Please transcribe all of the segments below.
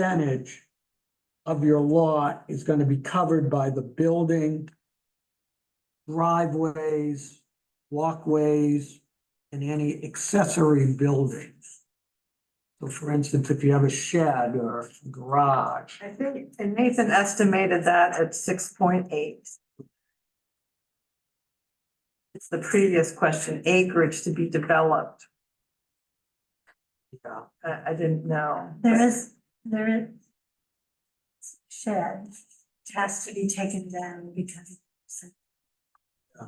percentage of your lot is gonna be covered by the building, driveways, walkways, and any accessory buildings. So for instance, if you have a shed or a garage, I think, and Nathan estimated that at six point eight. It's the previous question, acreage to be developed. Yeah, I, I didn't know. There is, there is shed, it has to be taken down because it's- Yeah.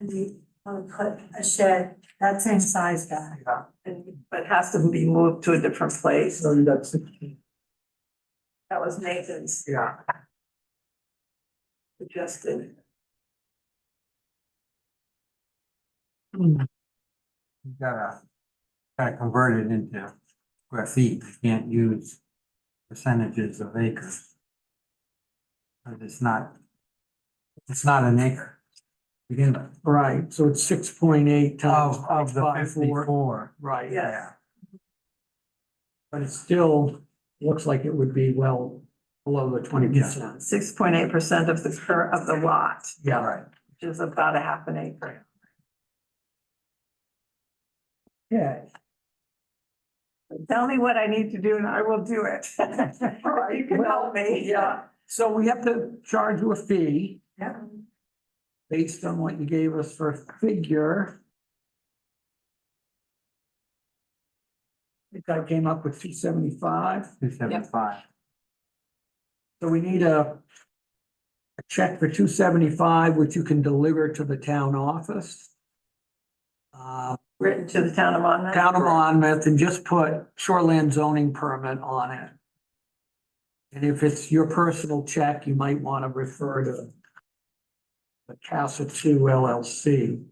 and we want to put a shed that same size back. Yeah, and, but has to be moved to a different place. so that's, That was Nathan's yeah. suggested. you gotta, gotta convert it into square feet, you can't use percentages of acres. But it's not, it's not an acre. Begin with, Right, so it's six point eight times of, of the 0.54. fifty-four, right? Yeah. yeah. But it still looks like it would be well below the twenty percent. Six point eight percent of the cur, of the lot, Yeah, Right, which is about a half an acre. yeah, Tell me what I need to do and I will do it. You can help me. yeah. So we have to charge you a fee Yeah. based on what you gave us for a figure. I think I came up with two seventy-five, two seventy-five, so we need a a check for two seventy-five, which you can deliver to the town office. Uh, Written to the town of Monmouth. Town of Monmouth and just put shoreland zoning permit on it. And if it's your personal check, you might want to refer to the Casa Two LLC.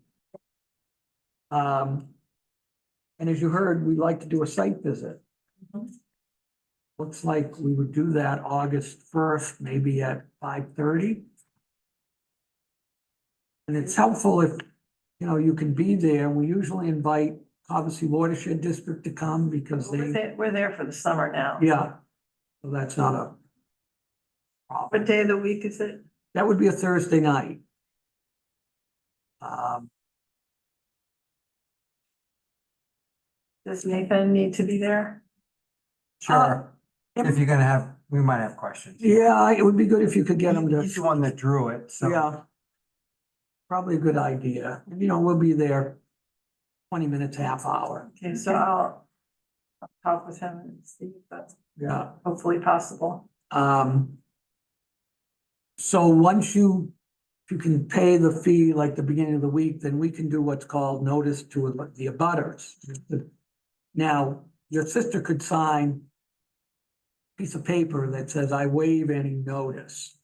Um, and as you heard, we like to do a site visit. Mhm. Looks like we would do that August first, maybe at five thirty. And it's helpful if, you know, you can be there. We usually invite obviously watershed district to come because We're they, there, we're there for the summer now. yeah. So that's not a What day of the week is it? That would be a Thursday night. Um, Does Nathan need to be there? sure, Uh, if you're gonna have, we might have questions. yeah, it would be good if you could get them He's the to, one that drew it, so, yeah. Probably a good idea. And, You know, we'll be there twenty minutes, half hour. Okay, so I'll I'll talk with him and see if that's Yeah. hopefully possible. Um. So once you, if you can pay the fee like the beginning of the week, then we can do what's called notice to the abutters. Now, your sister could sign a piece of paper that says, I waive any notice.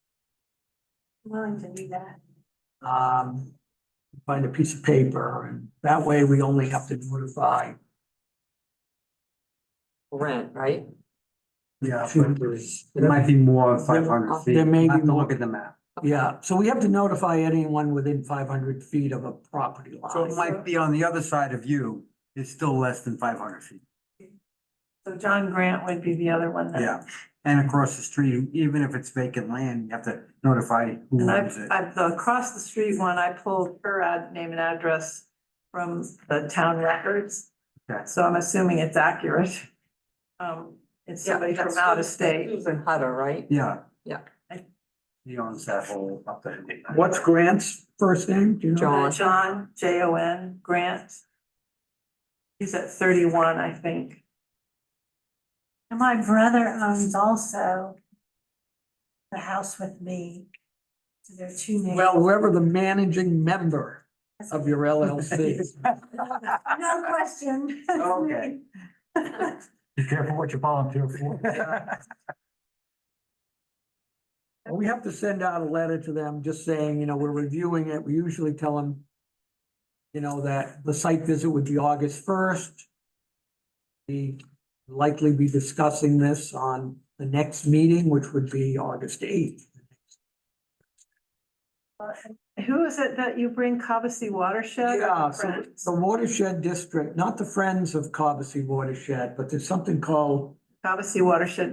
Willing to do that. Um, find a piece of paper and that way we only have to notify. rent, right? yeah. two- but It might be more five hundred feet. There may be Have to more. Look at the map. Yeah, so we have to notify anyone within five hundred feet of a property line. So it might be on the other side of you, it's still less than five hundred feet. So John Grant would be the other one then. Yeah, and across the street, even if it's vacant land, you have to notify who And owns I've, it. I've, the across the street one, I pulled her ad, name and address from the town records. Okay. So I'm assuming it's accurate. Um, it's somebody from out of state. Uh, Susan Hutter, right? Yeah. Yeah. He owns that whole up there. What's Grant's first name? Do you know? John. Uh, John, J O N, Grant. He's at thirty-one, I think. And my brother owns also the house with me. So there are two names. Well, whoever the managing member of your LLC. No question. Okay. Be careful what you volunteer for. We have to send out a letter to them just saying, you know, we're reviewing it. We usually tell them, you know, that the site visit would be August first. We likely be discussing this on the next meeting, which would be August eighth. Who is it that you bring, Cobussy Watershed? Yeah, so Friends? the watershed district, not the Friends of Cobussy Watershed, but there's something called Cobbessy Watershed